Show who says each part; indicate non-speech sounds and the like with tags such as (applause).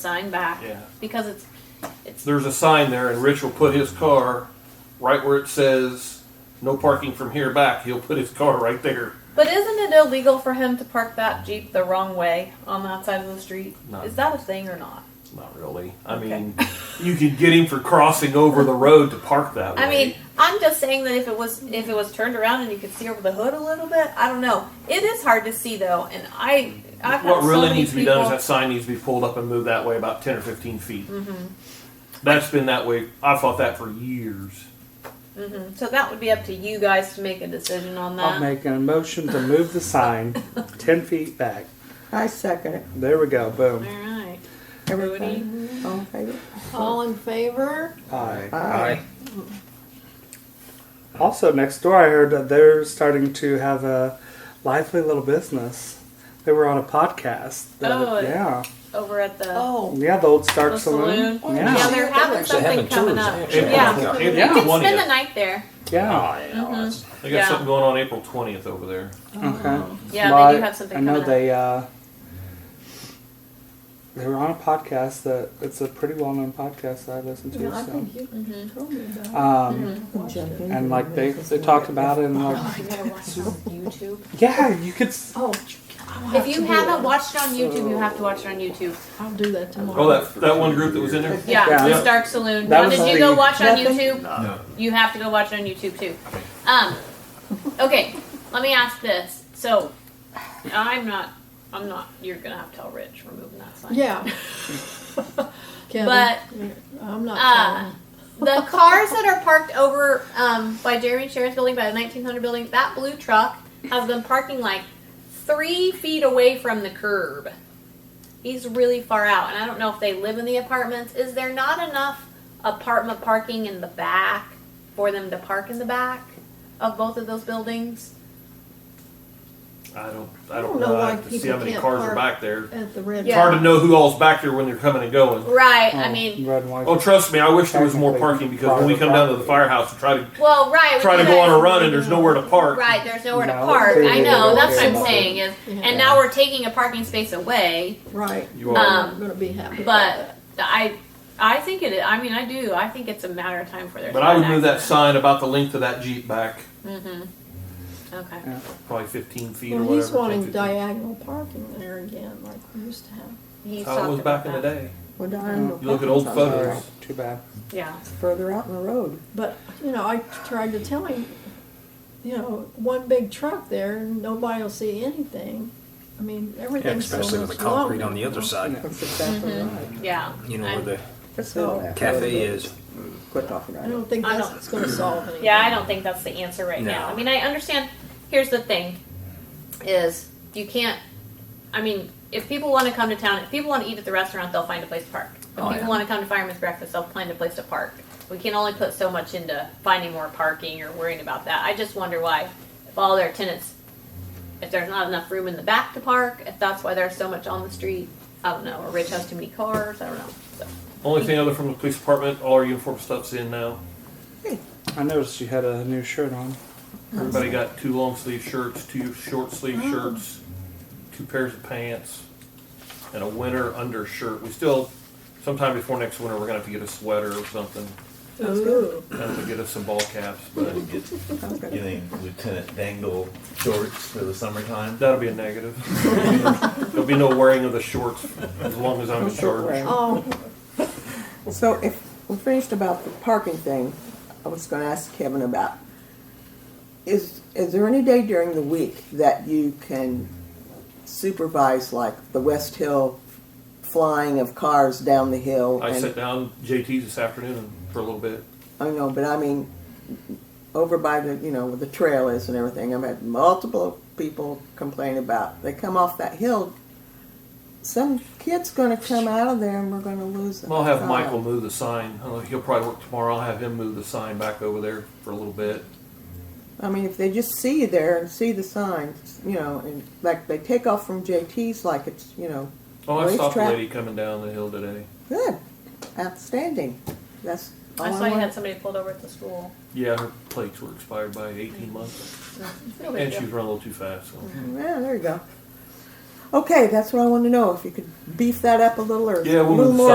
Speaker 1: sign back.
Speaker 2: Yeah.
Speaker 1: Because it's, it's,
Speaker 2: There's a sign there, and Rich will put his car right where it says "No parking from here back." He'll put his car right there.
Speaker 1: but isn't it illegal for him to park that Jeep the wrong way on that side of the street?
Speaker 2: No.
Speaker 1: Is that a thing or not?
Speaker 2: Not really. I
Speaker 1: Okay.
Speaker 2: mean, (laughs) you could get him for crossing over the road to park that way.
Speaker 1: I mean, I'm just saying that if it was if it was turned around and you could see over the hood a little bit, I don't know. It is hard to see though, and I I've had
Speaker 2: what
Speaker 1: so
Speaker 2: really
Speaker 1: many
Speaker 2: needs to be done is
Speaker 1: people-
Speaker 2: that sign needs to be pulled up and moved that way about ten or fifteen feet. Mm-hmm. That's been that way. I fought that for years.
Speaker 1: Mhm. So that would be up to you guys to make a decision on that.
Speaker 3: I'll make a motion to move the sign
Speaker 1: (laughs)
Speaker 3: ten feet back.
Speaker 4: I second it.
Speaker 3: There we go.
Speaker 1: All
Speaker 3: Boom.
Speaker 1: right.
Speaker 4: Everybody, all in favor?
Speaker 5: All in favor?
Speaker 3: Aye.
Speaker 4: Aye.
Speaker 3: Also, next door, I heard that they're starting to have a lively little business. They were on a podcast. that-
Speaker 1: Oh, it-
Speaker 3: yeah,
Speaker 1: over at the,
Speaker 5: Oh,
Speaker 3: yeah, the old Stark
Speaker 1: the
Speaker 3: Saloon.
Speaker 1: saloon.
Speaker 3: Yeah,
Speaker 1: Yeah, they're having
Speaker 6: Actually,
Speaker 1: something
Speaker 6: having
Speaker 1: coming
Speaker 6: tours,
Speaker 1: up.
Speaker 6: actually.
Speaker 1: Yeah,
Speaker 2: April
Speaker 3: Yeah.
Speaker 1: you can spend
Speaker 2: 20th.
Speaker 1: the night there.
Speaker 3: yeah.
Speaker 2: They got
Speaker 1: Yeah.
Speaker 2: something going on April twentieth over there.
Speaker 5: Oh.
Speaker 3: Okay.
Speaker 1: Yeah,
Speaker 3: Well,
Speaker 1: they do have something
Speaker 3: I know
Speaker 1: coming up.
Speaker 3: they. Uh, they were on a podcast that it's a pretty well-known podcast that I listen to.
Speaker 5: no, I
Speaker 3: so.
Speaker 5: think you
Speaker 1: Mm-hmm.
Speaker 5: told me about. it.
Speaker 3: um, and like they they talked about it and like
Speaker 1: You Oh, gotta watch it on YouTube.
Speaker 3: yeah, you could. s-
Speaker 5: Oh, I'll
Speaker 1: If you
Speaker 5: to do
Speaker 1: haven't
Speaker 5: that.
Speaker 1: watched it on YouTube, you have to watch it on YouTube.
Speaker 5: I'll do that tomorrow.
Speaker 2: Oh, that that one group that was in there.
Speaker 1: Yeah,
Speaker 3: Yeah.
Speaker 1: the Stark Saloon.
Speaker 3: That
Speaker 1: Now,
Speaker 3: was
Speaker 1: did you
Speaker 3: the-
Speaker 1: go watch on
Speaker 4: Nothing?
Speaker 1: YouTube? You have to go watch it on YouTube too. Um, okay, let me ask this. So, I'm not. I'm not. You're gonna have to tell Rich we're moving that sign.
Speaker 6: (laughs)
Speaker 5: Yeah. Kevin,
Speaker 1: But
Speaker 5: I'm
Speaker 1: uh,
Speaker 5: not.
Speaker 1: the cars that are parked over um, by Jeremy Sharon's building, by the 1900 building, that blue truck has been parking like three feet away from the curb. He's really far out, and I don't know if they live in the apartments. Is there not enough apartment parking in the back for them to park in the back of both of those buildings?
Speaker 2: I don't. I don't know. I
Speaker 5: why
Speaker 2: have to see
Speaker 5: people
Speaker 2: how many
Speaker 5: can't
Speaker 2: cars are
Speaker 5: park.
Speaker 2: back there.
Speaker 5: telling at the red.
Speaker 2: It's hard to know who all's back there when they're coming and going.
Speaker 1: Right, I
Speaker 3: oh,
Speaker 1: mean,
Speaker 3: red and white.
Speaker 2: Oh, trust me, I wish there was more parking because when we come down to the firehouse and try to
Speaker 1: well, right. with
Speaker 2: try to
Speaker 1: you
Speaker 2: go on
Speaker 1: guys-
Speaker 2: a run and there's nowhere to park.
Speaker 1: Right, there's nowhere to
Speaker 3: No,
Speaker 1: park.
Speaker 3: they
Speaker 1: I
Speaker 3: really
Speaker 1: know,
Speaker 3: don't
Speaker 1: that's what
Speaker 3: care
Speaker 1: I'm
Speaker 3: about
Speaker 1: saying is,
Speaker 5: Yeah.
Speaker 1: and now we're taking a parking space away.
Speaker 5: Right.
Speaker 2: You are.
Speaker 1: Um,
Speaker 5: I'm gonna be happy. about
Speaker 1: But I, I think it. I mean, I do. I think it's a matter of time for their.
Speaker 2: but I would move that sign about the length of that Jeep back,
Speaker 1: Mm-hmm. Okay.
Speaker 2: probably 15 feet
Speaker 5: that.
Speaker 2: or
Speaker 5: Well,
Speaker 2: whatever.
Speaker 5: he's wanting
Speaker 2: 10, 15.
Speaker 5: diagonal parking there again, like we used to have.
Speaker 1: He's
Speaker 2: That's how it was
Speaker 1: talked
Speaker 2: back in
Speaker 1: about
Speaker 2: the
Speaker 1: that.
Speaker 2: day.
Speaker 4: Well,
Speaker 3: Mm.
Speaker 4: darn, no
Speaker 2: You look at
Speaker 4: parking
Speaker 2: old
Speaker 4: sign.
Speaker 3: All
Speaker 2: photos.
Speaker 3: right, uh, too bad.
Speaker 1: Yeah.
Speaker 4: It's Further out in the road.
Speaker 5: But, you know, I tried to tell him, you know, one big truck there, nobody will see anything. I mean,
Speaker 6: Yeah,
Speaker 5: everything's so much
Speaker 6: especially
Speaker 5: longer.
Speaker 6: with the concrete on the other side,
Speaker 4: That's exactly right.
Speaker 1: Yeah.
Speaker 6: you know,
Speaker 1: I'm-
Speaker 6: where
Speaker 4: Let's go
Speaker 6: the
Speaker 4: that road.
Speaker 6: cafe is.
Speaker 4: Quit talking
Speaker 5: I
Speaker 4: about it.
Speaker 5: don't think
Speaker 1: I
Speaker 5: that's
Speaker 1: don't-
Speaker 5: what's gonna solve anything.
Speaker 1: Yeah, I don't think that's the answer right now.
Speaker 6: No.
Speaker 1: I mean, I understand. Here's the thing: is you can't. I mean, if people want to come to town, if people want to eat at the restaurant, they'll find a place to park. If
Speaker 6: Oh,
Speaker 1: people
Speaker 6: yeah.
Speaker 1: want to come to Fireman's Breakfast, they'll find a place to park. We can only put so much into finding more parking or worrying about that. I just wonder why, if all their tenants, if there's not enough room in the back to park, if that's why there's so much on the street. I don't know. Or Rich has too many cars. I don't know. So.
Speaker 2: Only thing other from the police department, all our uniform stuff's in now.
Speaker 3: I noticed you had a new shirt on.
Speaker 2: Everybody got two long sleeve shirts, two short sleeve
Speaker 5: Oh.
Speaker 2: shirts, two pairs of pants, and a winter undershirt. We still, sometime before next winter, we're gonna have to get a sweater or something.
Speaker 5: Ooh,
Speaker 2: Gonna have to get us some ball caps, but
Speaker 4: Sounds good.
Speaker 7: Getting Lieutenant Dangle shorts for the summertime.
Speaker 2: that'll be a negative. (laughs) There'll be no wearing of the shorts as long as I'm in charge.
Speaker 5: oh,
Speaker 4: So if we finished about the parking thing, I was gonna ask Kevin about, is, is there any day during the week that you can supervise like the West Hill flying of cars down the hill?
Speaker 2: I
Speaker 4: and-
Speaker 2: sat down JT's this afternoon and- for a little bit.
Speaker 4: I know, but I mean, over by the, you know, where the trail is and everything, I've had multiple people complain about, they come off that hill, some kid's gonna come out of there and we're gonna lose them.
Speaker 2: I'll have Michael move the sign. I don't know, He'll probably work tomorrow. I'll have him move the sign back over there for a little bit.
Speaker 4: I mean, if they just see you there and see the signs, you know, and like they take off from JT's like it's, you know,
Speaker 2: Oh, I stopped a
Speaker 4: Racetrack.
Speaker 2: lady coming down the hill today.
Speaker 4: good, outstanding. That's all
Speaker 1: I saw you had
Speaker 4: want.
Speaker 1: somebody pulled over at the school.
Speaker 2: Yeah, her plates were expired by 18 months,
Speaker 1: No big
Speaker 2: and
Speaker 1: deal.
Speaker 4: Mm-hmm.
Speaker 2: she was running a little too fast. So.
Speaker 4: Yeah, there you go. Okay, that's what I want to know, if you could beef that up a little or a
Speaker 2: Yeah, we'll
Speaker 4: little
Speaker 2: move
Speaker 4: more